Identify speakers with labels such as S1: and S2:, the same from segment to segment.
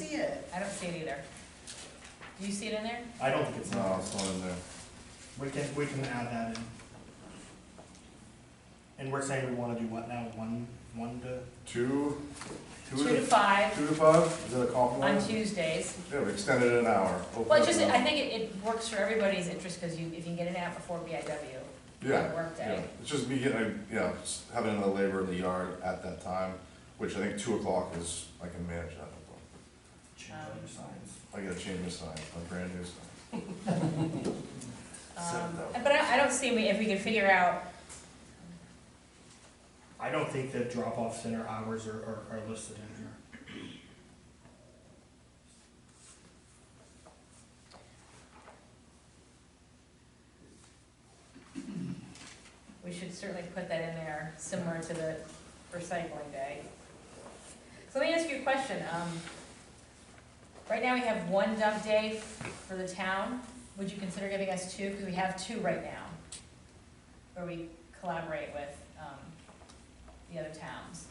S1: I don't see it either. Do you see it in there?
S2: I don't think it's
S3: No,
S2: not.
S3: it's not in there.
S2: We can, we can add that in. And we're saying we wanna do what now, one, one to?
S3: Two, two
S1: Two to
S3: to,
S1: five
S3: two to five, is that a
S1: on
S3: compromise?
S1: Tuesdays.
S3: Yeah, we extended it an hour.
S1: Well, it's just, I think it, it works for everybody's interest, because you, if you can get it out before BIW,
S3: Yeah,
S1: on
S3: yeah,
S1: workday.
S3: it's just me getting, yeah, just having another labor in the yard at that time, which I think two o'clock is, I can manage that.
S2: Change other signs.
S3: I gotta change my sign, my brand new
S1: Um,
S3: sign. So, no.
S1: but I, I don't see, we- if we can figure out,
S2: I don't think the drop-off center hours are, are, are listed in here.
S1: we should certainly put that in there, similar to the recycling day. So let me ask you a question, um, right now we have one dump day for the town, would you consider giving us two, because we have two right now, where we collaborate with, um, the other towns,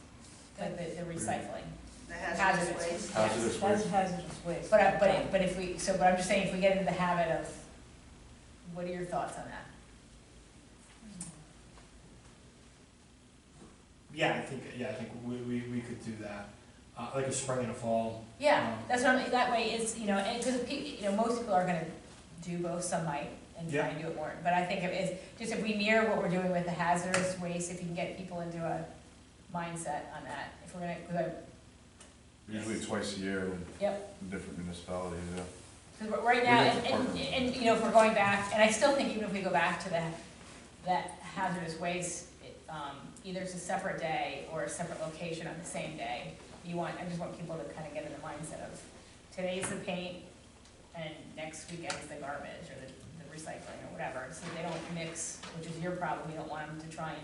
S1: like the, the recycling.
S4: The hazardous waste.
S3: Hazardous
S5: That's
S3: waste,
S5: hazardous waste.
S1: But, I- but, but if we, so, but I'm just saying, if we get into the habit of, what are your thoughts on that?
S2: Yeah, I think, yeah, I think we, we, we could do that, uh, like a spring and a fall.
S1: Yeah, that's what I'm, that way it's, you know, and, cause, pe- you know, most people are gonna do both, some might, and try
S2: Yeah.
S1: and do it more, but I think it's, just if we mirror what we're doing with the hazardous waste, if you can get people into a mindset on that, if we're gonna, cause I-
S3: usually twice a year in
S1: yep,
S3: different municipalities, yeah.
S1: cause we're- right
S3: We
S1: now,
S3: need to
S1: and, and,
S3: partner.
S1: and, you know, if we're going back, and I still think even if we go back to that, that hazardous waste, it, um, either it's a separate day or a separate location on the same day. You want, I just want people to kind of get in the mindset of, today's the paint, and next weekend's the garbage, or the, the recycling, or whatever, so they don't mix, which is your problem, you don't want them to try and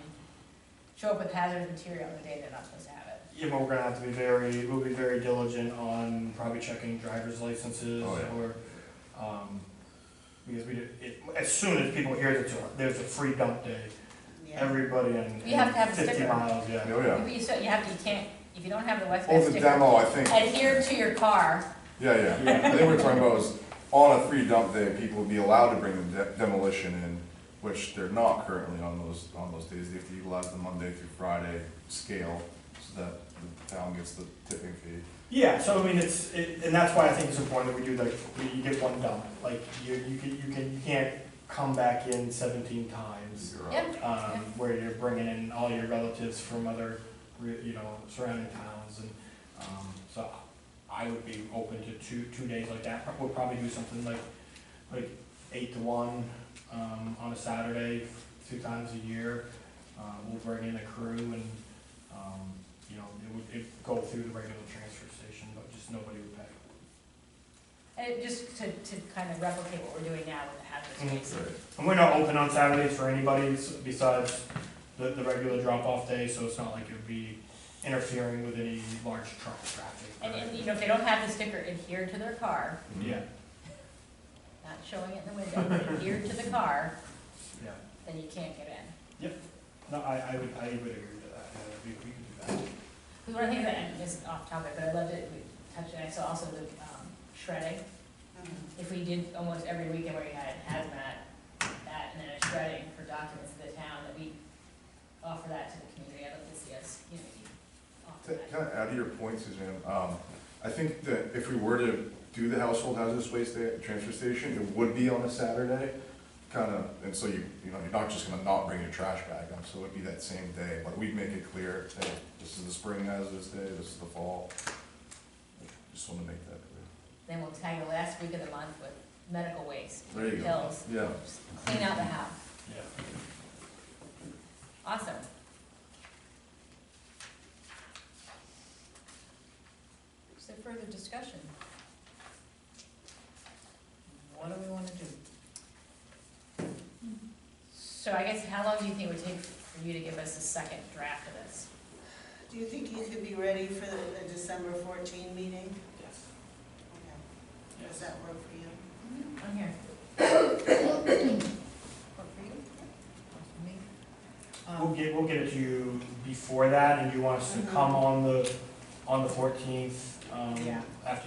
S1: show up with hazardous material the day they're not supposed to have it.
S2: Yeah, but we're gonna have to be very, we'll be very diligent on probably checking driver's licenses
S3: Oh, yeah.
S2: or, um, because we, do- it, as soon as people hear that there- there's a free dump day,
S4: Yeah.
S2: everybody in
S1: You have to have a
S2: in fifty
S1: sticker.
S2: miles, yeah.
S3: Oh, yeah.
S1: But you still, you have to, you can't, if you don't have the West
S3: Oh,
S1: Bath
S3: the
S1: sticker,
S3: demo, I think.
S1: adhere to your car,
S3: Yeah, yeah. I think we're talking about is on a free dump day, people would be allowed to bring the de- demolition in, which they're not currently on those, on those days. They have to utilize the Monday through Friday scale so that the town gets the tipping fee.
S2: Yeah, so I mean, it's, it, and that's why I think it's important that we do like, you- you get one dump, like, you, you can, you can, you can't come back in seventeen times.
S3: You're up.
S1: yep,
S2: um, where you're bringing in all your relatives from other, re- you know, surrounding towns, and, um, so I would be open to two, two days like that, we'll probably do something like, like eight to one, um, on a Saturday, two times a year, uh, we'll bring in a crew and, um, you know, it would, it'd go through the regular transfer station, but just nobody would pay.
S1: And just to, to kind of replicate what we're doing now with the hazardous
S2: Mhm.
S1: waste.
S3: Right.
S2: And we're not open on Saturdays for anybody s- besides the, the regular drop-off day, so it's not like it would be interfering with any large truck traffic.
S1: And, and, you know, if they don't have the sticker adhered to their car,
S2: Yeah,
S1: not showing it in the window, but adhered to the car,
S2: yeah.
S1: then you can't get in.
S2: No, I, I would, I would agree with that, yeah, we, we could do that.
S1: Because one of the things that, and this is off topic, but I loved it, we touched it, I saw also the um, shredding.
S4: Mm-hmm.
S1: If we did almost every weekend where we had hazmat, that, and then a shredding for documents of the town, that we offer that to the community, I'd love to see us, you know, offer
S3: To
S1: that.
S3: kind of add to your point, Suzanne, um, I think that if we were to do the household hazardous waste day at the transfer station, it would be on a Saturday. Kind of, and so you, you know, you're not just gonna not bring your trash bag up, so it would be that same day, but we'd make it clear, hey, this is the spring hazardous day, this is the fall. Just wanna make that clear.
S1: Then we'll tag the last week of the month with medical waste,
S3: There you go.
S1: pills,
S3: Yeah,
S1: just clean out the house.
S2: Yeah.
S1: Awesome. Is there further discussion?
S5: What do we wanna do?
S1: So I guess how long do you think it would take for you to give us a second draft of this?
S4: Do you think you could be ready for the the December 14 meeting?
S2: Yes.
S4: Okay. Does
S2: Yes.
S4: that work for you?
S1: I'm here.
S5: Work for you? Work for me?
S2: We'll
S5: Um,
S2: get, we'll get it to you before that, and you want us to come on the, on the fourteenth, um,
S5: Yeah.
S2: after